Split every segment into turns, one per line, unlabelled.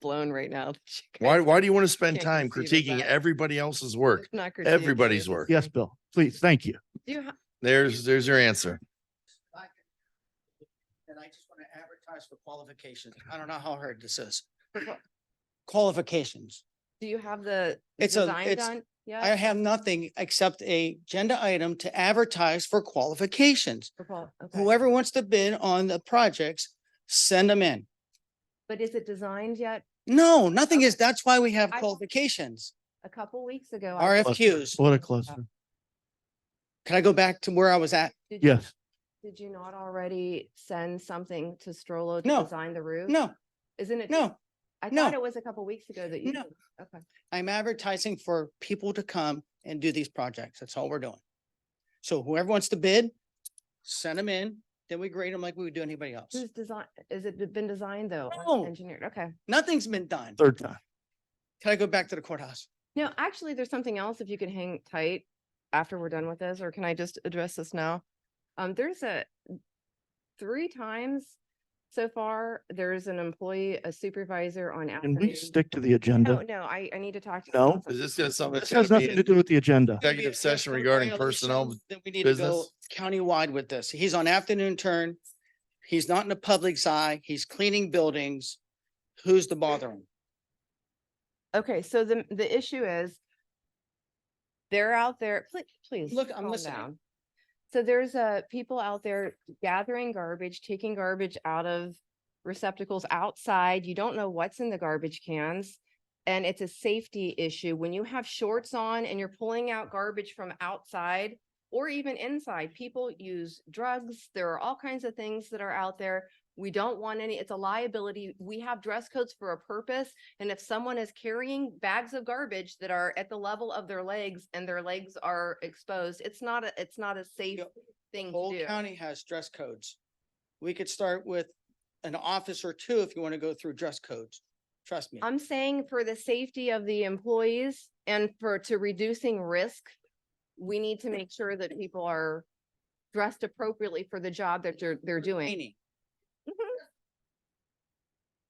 blown right now. that you
Why,
guys
why do you want to spend
can't
time
conceive of
critiquing
that.
everybody else's work?
not critiquing
Everybody's
it.
work.
Yes, Bill, please, thank you.
Do you ha-
There's, there's your answer.
And I just want to advertise for qualifications. I don't know how hard this is. Qualifications.
do you have the
It's a-
design
it's-
done?
I
Yeah.
have nothing except a agenda item to advertise for qualifications. Whoever wants to bid on the projects, send them in.
But is it designed yet?
No, nothing is, that's why we have
I-
qualifications,
A couple weeks ago. I
Cluster.
RFQs.
What a
Uh,
cluster.
Can I go back to where I was at?
did you-
Yes,
Did you not already send something to Strollo to
No.
design the roof?
No,
Isn't it?
no,
I
no.
thought it was a couple weeks ago that you.
No.
did. Okay.
I'm advertising for people to come and do these projects. That's all we're doing. So whoever wants to bid, send them in, then we grade them like we would do anybody else.
Who's design, is it been designed though? or
No.
Engineered, okay.
Nothing's been done.
third time.
Can I go back to the courthouse?
No, actually, there's something else if you can hang tight after we're done with this, or can I just address this now? Um, there's a, three times so far, there's an employee, a supervisor on.
Can we
afternoon-
stick to the
No,
agenda?
no, I, I need to talk. to
No?
council.
Is this gonna something?
This has nothing to do with the agenda.
Maybe
Executive
if there's
session
some
regarding personnel
violations, Then we need to go
business.
countywide with this. He's on afternoon turn. He's not in the public's eye. He's cleaning buildings. Who's the bothering?
Okay, so the, the issue is they're out there, please, please.
Look, I'm
calm
listening.
down. So there's uh people out there gathering garbage, taking garbage out of receptacles outside. You don't know what's in the garbage cans. And it's a safety issue. When you have shorts on and you're pulling out garbage from outside or even inside, people use drugs. There are all kinds of things that are out there. We don't want any, it's a liability. We have dress codes for a purpose. And if someone is carrying bags of garbage that are at the level of their legs and their legs are exposed, it's not a, it's not a safe
Yep.
thing to
Whole
do.
county has dress codes. We could start with an office or two if you want to go through dress codes. Trust me.
I'm saying for the safety of the employees and for to reducing risk, we need to make sure that people are dressed appropriately for the job that they're, they're doing. Mm-hmm.
Cleaning.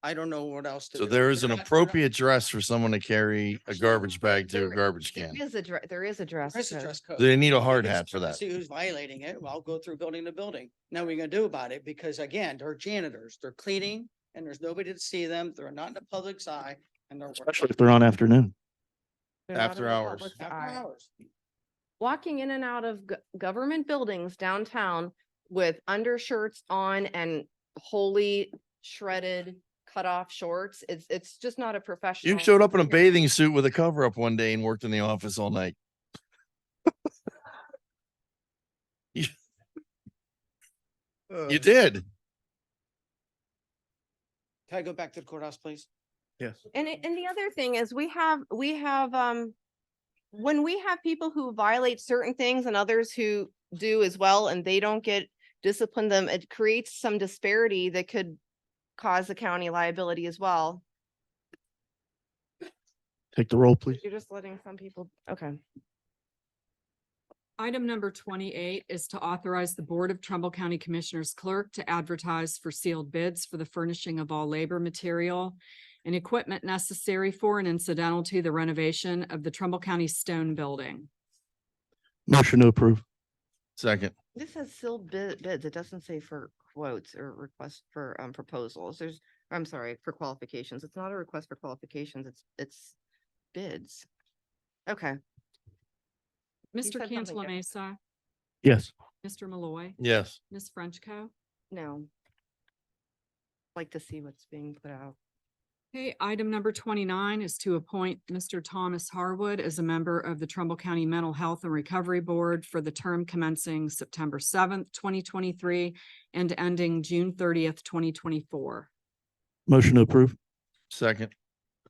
I don't know what else to do.
So there is
We're
an
not- we're not-
appropriate dress for someone to carry a garbage bag to a garbage
There
can.
is a, dre- there is a dress
There is a
code.
dress code.
Do They need a hard
It's
hat for
to
that.
See who's violating it. Well, I'll go through building to building. Now we're gonna do about it because again, they're janitors, they're cleaning and there's nobody to see them. They're not in the public's eye and they're. working
Especially if they're on afternoon.
They're not in
After
the
hours.
public's
after
eye.
hours.
walking in and out of go- government buildings downtown with undershirts on and wholly shredded cut off shorts. It's, it's just not a professional.
You showed up in a bathing suit with a cover up one day and worked in the office all night. You you did.
Can I go back to the courthouse, please?
Yes.
And, it- and the other thing is we have, we have, um, when we have people who violate certain things and others who do as well, and they don't get disciplined them, it creates some disparity that could cause the county liability as well.
Take the roll, please.
You're just letting some people, okay.
Item number twenty-eight is to authorize the Board of Trumbull County Commissioners Clerk to advertise for sealed bids for the furnishing of all labor material and equipment necessary for and incidental to the renovation of the Trumbull County Stone Building.
Motion to approve.
Second,
This says sealed bid, bids. It doesn't say for quotes or request for, um, proposals. There's, I'm sorry, for qualifications. It's not a request for qualifications. It's, it's bids. Okay, said
Mr.
something
Cantala
different.
Mesa,
Yes.
Mr. Malloy,
yes.
Ms. Frenchco.
no. Like to see what's being put out.
Okay, item number twenty-nine is to appoint Mr. Thomas Harwood as a member of the Trumbull County Mental Health and Recovery Board for the term commencing September seventh, twenty twenty-three and ending June thirtieth, twenty twenty-four.
Motion to approve.
Second,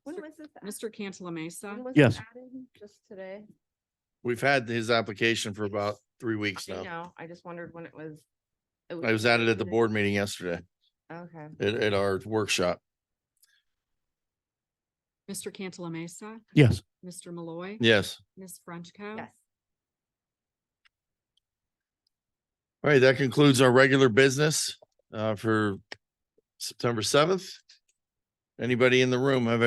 When was this? a-
Mr. Cantala Mesa,
when was
Yes.
this added? Just today?
we've had his application for about three weeks
I
now.
know. I just wondered when it was. it
I was added at the
today.
board meeting yesterday
Okay.
at, at our workshop.
Mr. Cantala Mesa,
Yes.
Mr. Malloy,
Yes.
Ms. Frenchco.
Yes.
All right, that concludes our regular business uh for September seventh. Anybody in the room have any